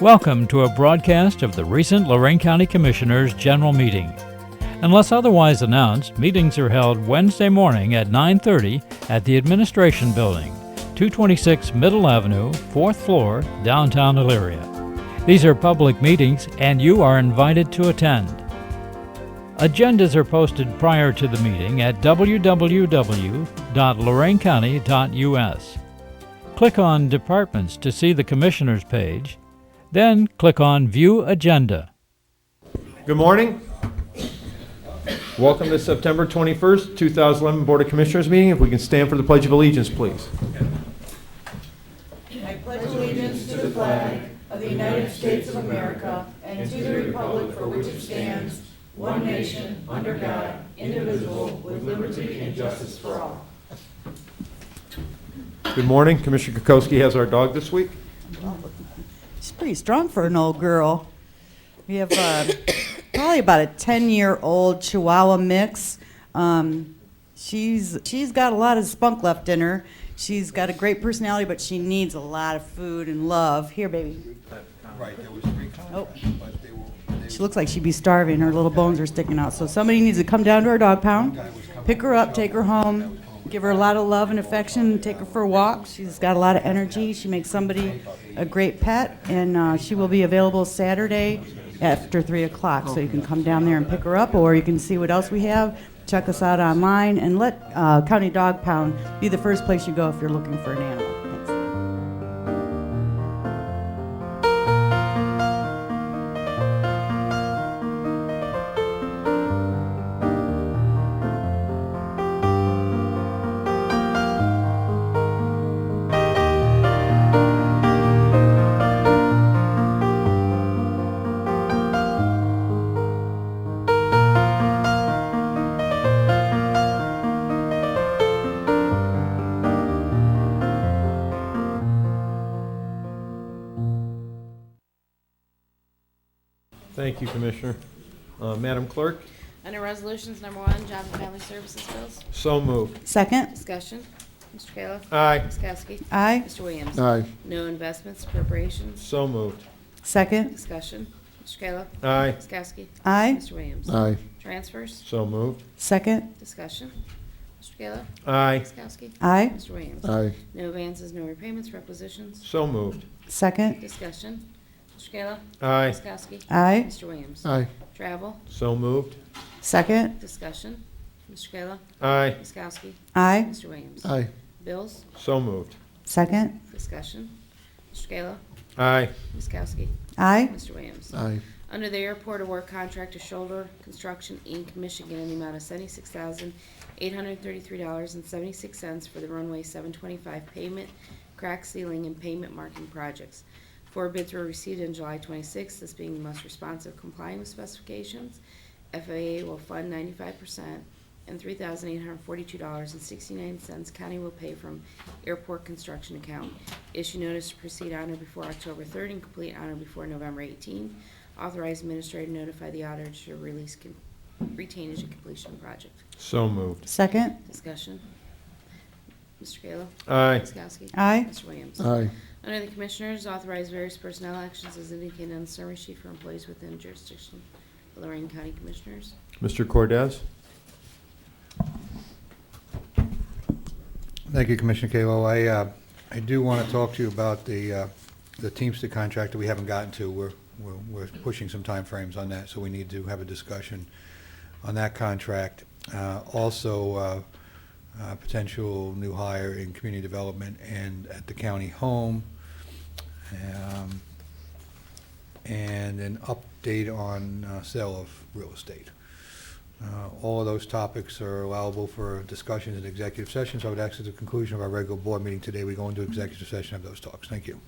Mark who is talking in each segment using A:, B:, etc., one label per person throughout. A: Welcome to a broadcast of the recent Lorraine County Commissioners' General Meeting. Unless otherwise announced, meetings are held Wednesday morning at 9:30 at the Administration Building, 226 Middle Avenue, 4th floor, downtown Elyria. These are public meetings and you are invited to attend. Agendas are posted prior to the meeting at www.loraincounty.us. Click on Departments to see the Commissioners page, then click on View Agenda.
B: Good morning. Welcome to September 21st, 2011 Board of Commissioners meeting. If we can stand for the Pledge of Allegiance, please. Good morning. Commissioner Kokoski has our dog this week.
C: She's pretty strong for an old girl. We have uh, probably about a ten-year-old Chihuahua mix. Um, she's she's got a lot of spunk left in her. She's got a great personality, but she needs a lot of food and love. Here, baby.
D: Right, there was three contracts, but they were, they
C: She looks like she'd be starving. Her little bones are sticking out. So somebody needs to come down to our dog pound, pick her up, take her home, give her a lot of love and affection, take her for a walk. She's got a lot of energy. She makes somebody a great pet, and uh, she will be available Saturday after 3 o'clock. So you can come down there and pick her up, or you can see what else we have. Check us out online, and let uh, County Dog Pound be the first place you go if you're looking for an animal. Thanks.
B: Thank you, Commissioner. Uh, Madam Clerk,
E: Under Resolutions Number One, Job and Family Services Bills,
B: so moved.
C: Second,
E: discussion. Mr. Kayla.
B: Aye.
E: Ms. Kowski.
C: aye.
E: Mr. Williams.
D: Aye.
E: No investments, appropriations,
B: So moved.
C: Second,
E: discussion. Mr. Kayla.
B: Aye.
E: Ms. Kowski.
C: aye.
E: Mr. Williams.
D: Aye.
E: Transfers,
B: So moved.
C: Second,
E: discussion. Mr. Kayla.
B: Aye.
E: Ms. Kowski.
C: aye.
E: Mr. Williams.
D: Aye.
E: No advances, no repayments, requisitions,
B: So moved.
C: Second,
E: discussion. Mr. Kayla.
B: Aye.
E: Ms. Kowski.
C: aye.
E: Mr. Williams.
D: Aye.
E: Travel,
B: So moved.
C: Second,
E: discussion. Mr. Kayla.
B: Aye.
E: Ms. Kowski.
C: aye.
E: Mr. Williams.
D: Aye.
E: Bills,
B: So moved.
C: Second,
E: discussion. Mr. Kayla.
B: Aye.
E: Ms. Kowski.
C: aye.
E: Mr. Williams.
D: Aye.
E: Under the airport award contract to Shoulder Construction, Inc., Michigan, in the amount of seventy-six thousand, eight hundred and thirty-three dollars and seventy-six cents for the runway seven twenty-five pavement, crack sealing, and pavement marking projects. Four bids were received on July twenty-sixth, this being the most responsive complying with specifications. FAA will fund ninety-five percent, and three thousand eight hundred and forty-two dollars and sixty-nine cents county will pay from airport construction account. Issue notice to proceed on or before October third and complete on or before November eighteenth. Authorize administrator to notify the auditor to release com- retainage and completion project.
B: So moved.
C: Second,
E: Discussion. Mr. Kayla.
B: Aye.
E: Ms. Kowski.
C: aye.
E: Mr. Williams.
D: Aye.
E: Under the Commissioners, authorize various personnel actions as indicated on the summary sheet for employees within jurisdiction of Lorraine County Commissioners.
B: Mr. Cordez?
F: Thank you, Commissioner Kalo. I, uh, I do want to talk to you about the, uh, the Teamster contract that we haven't gotten to. We're, we're we're pushing some timeframes on that, so we need to have a discussion on that contract. Uh, Also, uh, uh, potential new hire in community development and at the county home. Um, And an update on uh, sale of real estate. Uh, All of those topics are allowable for discussions in executive sessions. I would ask at the conclusion of our regular board meeting today, we go into executive session of those talks. Thank you.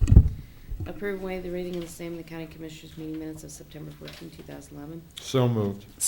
E: Approve and waive the reading of the same in the County Commissioners meeting minutes of September 14, 2011.
B: So moved.